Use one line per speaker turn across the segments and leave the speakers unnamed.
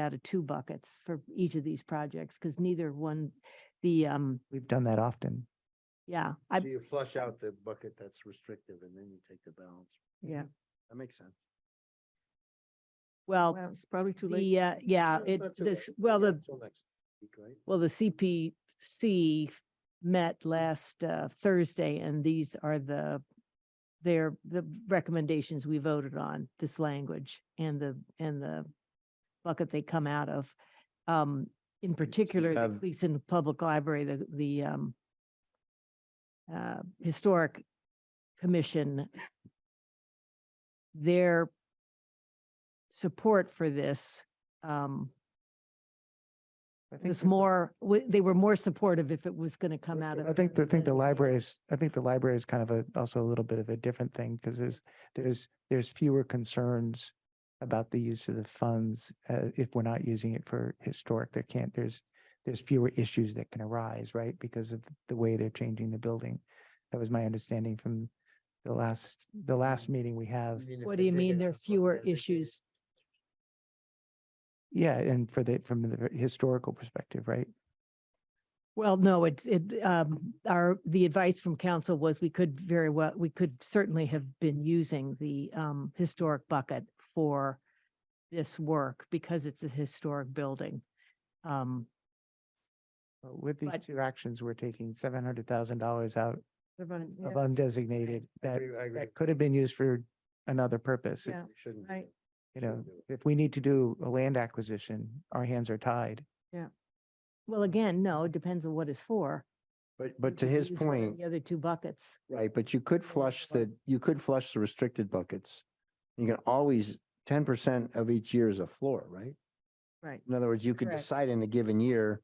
out of two buckets for each of these projects, because neither one, the, um,
We've done that often.
yeah, I,
So you flush out the bucket that's restrictive and then you take the balance.
Yeah.
That makes sense.
well,
Well, it's probably too late.
the, uh, yeah,
No, it's
it,
not too
this,
late.
well,
Yeah,
the,
Till next week, right?
well, the CPC met last, uh, Thursday, and these are the, their, the recommendations we voted on, this language and the, and the bucket they come out of. Um, in particular, the
have-
Gleason Public Library, the, the, um, uh, Historic Commission, their support for this, um,
I think
was
that the-
more, w- they were more supportive if it was going to come out of.
I think, the- I think the
the-
library is, I think the library is kind of a, also a little bit of a different thing because there's, there's, there's fewer concerns about the use of the funds, uh, if we're not using it for historic, there can't, there's, there's fewer issues that can arise, right? Because of the way they're changing the building. That was my understanding from the last, the last meeting we have.
Even if
What
they
do you
did
mean
it
there
on
are
a
fewer
designated
issues?
Yeah, and for the, from the historical perspective, right?
Well, no, it's, it, um, our, the advice from council was we could very well, we could certainly have been using the, um, historic bucket for this work because it's a historic building. Um,
But With these
But-
two actions, we're taking seven hundred thousand dollars out
They're running-
of
yeah,
undesignated
I
that
agree- I agree.
that could have been used for another purpose. If-
yeah,
We shouldn't. do
right.
that.
You
Shouldn't
know,
do it.
if we need to do a land acquisition, our hands are tied.
well, again, no, it depends on what it's for.
But,
You
but to
could
his
use one of
point,
The other two buckets.
right, but you could flush the, you could flush the restricted buckets. You can always, ten percent of each year is a floor, right?
Right.
In other words, you could
Correct.
decide in a given year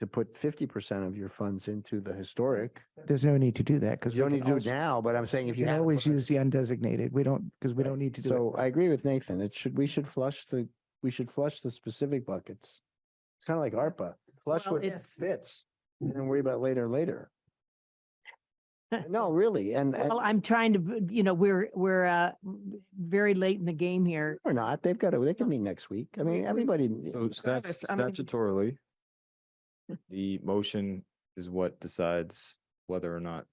to put fifty percent of your funds into the historic.
There's no need to do that because.
You don't need to do it now, but I'm saying if
You
you
can
have.
always use the undesignated. We don't, because we don't need to do
So I agree with Nathan. It should, we should flush the, we should flush the specific buckets. It's kind of like ARPA, flush
Well,
what
it's-
fits and then worry about later, later. No, really, and. and-
Well, I'm trying to, b- you know, we're, we're, uh, m- very late in the game here.
Or not, they've got to, they can meet next week. I mean, everybody,
So stat-
regardless, I mean-
statutorily, the motion is what decides whether or not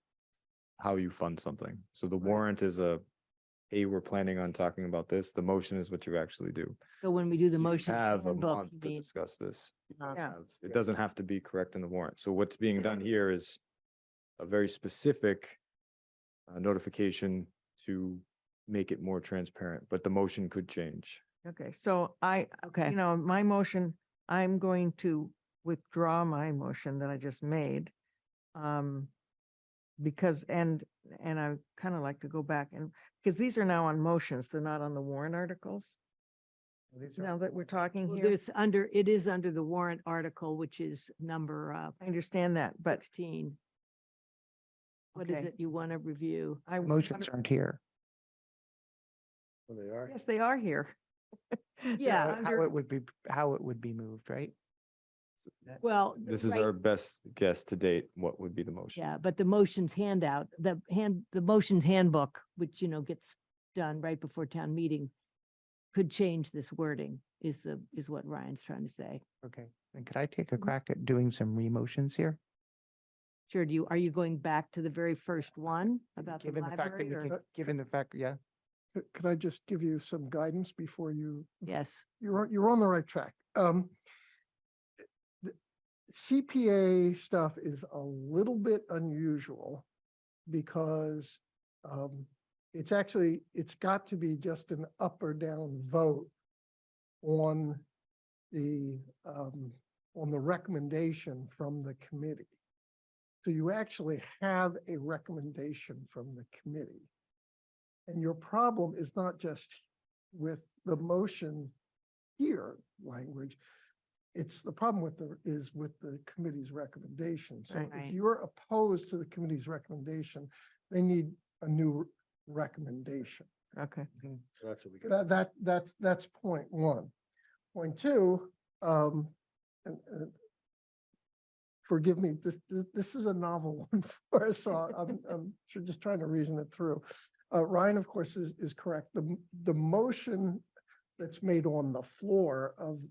how you fund something. So the warrant is a, hey, we're planning on talking about this. The motion is what you actually do.
So when we do
So
the
you
motion
Have a
handbook,
month
you
to
mean,
discuss this.
uh,
Yeah.
Have- It doesn't have to be correct in the warrant. So what's being done here is a very specific uh, notification to make it more transparent, but the motion could change.
Okay, so I,
okay.
you know, my motion, I'm going to withdraw my motion that I just made. Um, because, and, and I kind of like to go back and, because these are now on motions, they're not on the warrant articles.
it.
Now that we're talking
Well,
here,
There's under, it is under the warrant article, which is number uh,
I understand that, but
sixteen. What is
Okay.
it you want to review?
I.
Motions aren't here.
Well, they are.
Yes, they are here.
Yeah,
How- How
under-
it would be, how it would be moved, right?
Well.
This is
right,
our best guess to date, what would be the motion.
Yeah, but the motions handout, the hand, the motions handbook, which, you know, gets done right before town meeting, could change this wording is the, is what Ryan's trying to say.
Okay. And could I take
Mm-hmm.
a crack at doing some remotions here?
Sure, do you, are you going back to the very first one about the
Given the fact that
library
we
or?
can, given the fact, yeah.
Uh, Could I just give you some guidance before you,
Yes,
you're, on- you're on the right track. Um, the CPA stuff is a little bit unusual because um, it's actually, it's got to be just an up or down vote on the, um, on the recommendation from the committee. So you actually have a recommendation from the committee. And your problem is not just with the motion here language. It's the problem with the, is with the committee's recommendation. So
Right.
if you're opposed to the committee's recommendation, they need a new recommendation.
Okay.
That's what we got.
That, that, that's, that's point one. Point two, um, and, and forgive me, this, this, this is a novel one for us, so I- I'm, I'm tr- just trying to reason it through. Uh, Ryan, of course, is, is correct. The, m- the motion that's made on the floor of